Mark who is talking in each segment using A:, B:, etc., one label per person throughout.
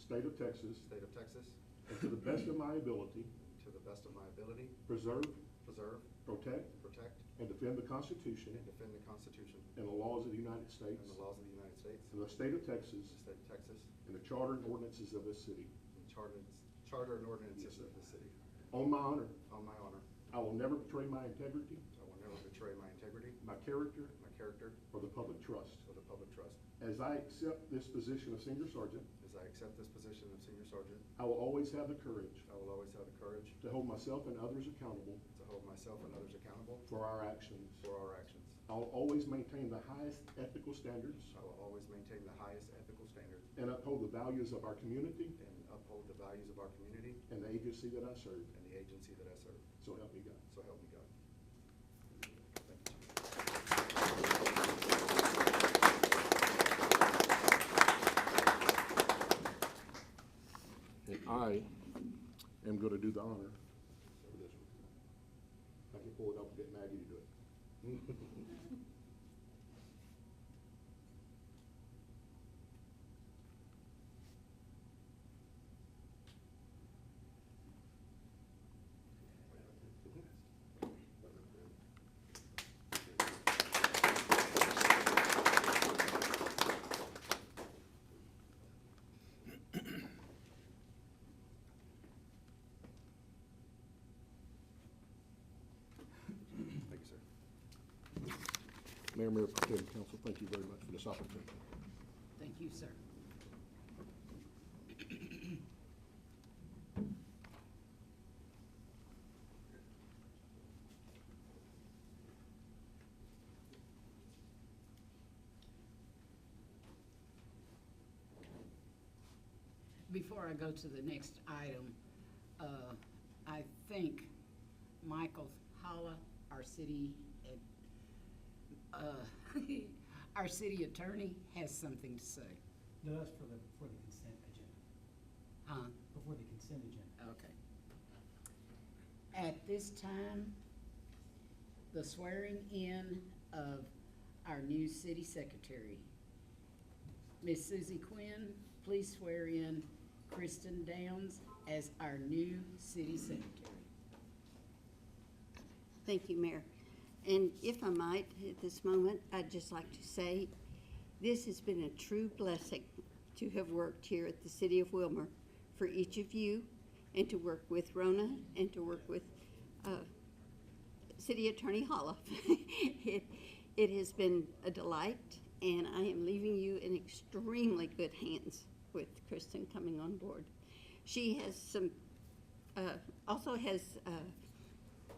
A: state of Texas,
B: state of Texas,
A: and to the best of my ability,
B: to the best of my ability,
A: preserve,
B: preserve,
A: protect,
B: protect,
A: and defend the Constitution
B: and defend the Constitution
A: and the laws of the United States,
B: and the laws of the United States,
A: and the state of
B: the
A: Texas,
B: state of Texas,
A: and the charter and ordinances of this city.
B: and charter charter and ordinances of the city.
A: On my honor,
B: On my honor,
A: I will never betray my integrity,
B: I will never betray my integrity,
A: my character,
B: my character,
A: or the public trust.
B: or the public trust.
A: As I accept this position of senior sergeant,
B: As I accept this position of senior sergeant,
A: I will always have the courage
B: I will always have the courage
A: to hold myself and others accountable
B: to hold myself and others accountable
A: for our actions.
B: for our actions.
A: I will always maintain the highest ethical standards
B: I will always maintain the highest ethical standards
A: and uphold the values of our community
B: and uphold the values of our community
A: and the agency that I serve.
B: and the agency that I serve.
A: So help me God.
B: So help me God. Thank you. Chief.
A: And I am going to do the honor for this one. I can pull it up and get Maggie to do it.
B: Thank you, sir.
A: Mayor, Mayor, Pro Tem, Council, thank you very much for this opportunity.
C: Thank you, sir. Before I go to the next item, uh, I think Michael Holla, our city ad- uh, our city attorney has something to say.
D: No, that's for the, for the consent agenda,
C: Huh?
D: before the consent agenda.
C: Okay. At this time, the swearing in of our new city secretary. Miss Susie Quinn, please swear in Kristen Downs as our new city secretary.
E: Thank you, Mayor. And if I might, at this moment, I'd just like to say, this has been a true blessing to have worked here at the City of Wilmer for each of you, and to work with Rona, and to work with uh, City Attorney Holla. It it has been a delight, and I am leaving you in extremely good hands with Kristen coming on board. She has some, uh, also has uh,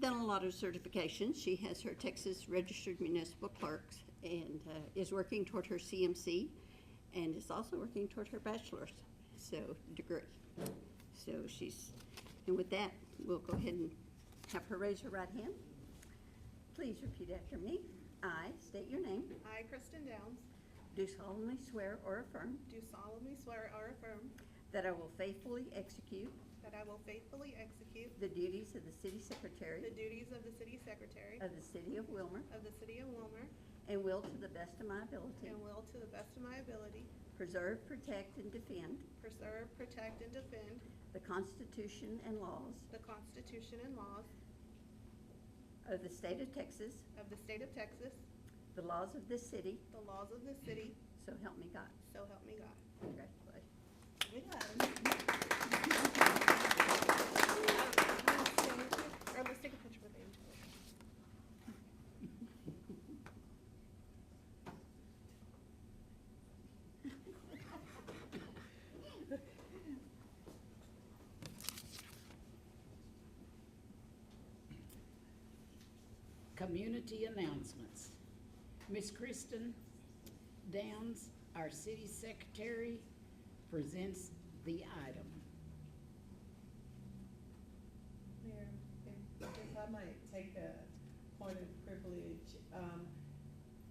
E: done a lot of certifications. She has her Texas Registered Municipal Clerks and uh, is working toward her CMC and is also working toward her bachelor's, so degree. So she's, and with that, we'll go ahead and have her raise her right hand. Please repeat after me. I state your name.
F: I, Kristen Downs,
E: Do solemnly swear or affirm
F: do solemnly swear or affirm
E: that I will faithfully execute
F: that I will faithfully execute
E: the duties of the city
F: the
E: secretary
F: duties of the city secretary
E: of the city of Wilmer
F: of the city of Wilmer
E: and will to the best of my ability
F: and will, to the best of my ability,
E: preserve, protect, and defend
F: preserve, protect, and defend
E: The Constitution and laws
F: the Constitution and laws
E: of the state of Texas,
F: of the state of Texas,
E: the laws of this city,
F: the laws of the city,
E: so help me God.
F: so help me God.
E: Congratulations.
F: Or let's take a picture with Angel.
C: Community announcements. Miss Kristen Downs, our city secretary, presents the item.
G: Mayor, if if I might take a point of privilege, um,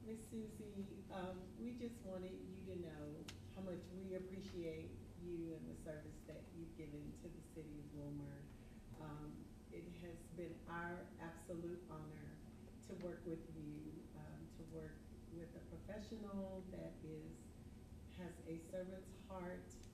G: Ms. Susie, um, we just wanted you to know how much we appreciate you and the service that you've given to the city of Wilmer. Um, it has been our absolute honor to work with you, um, to work with a professional that is, has a servant's heart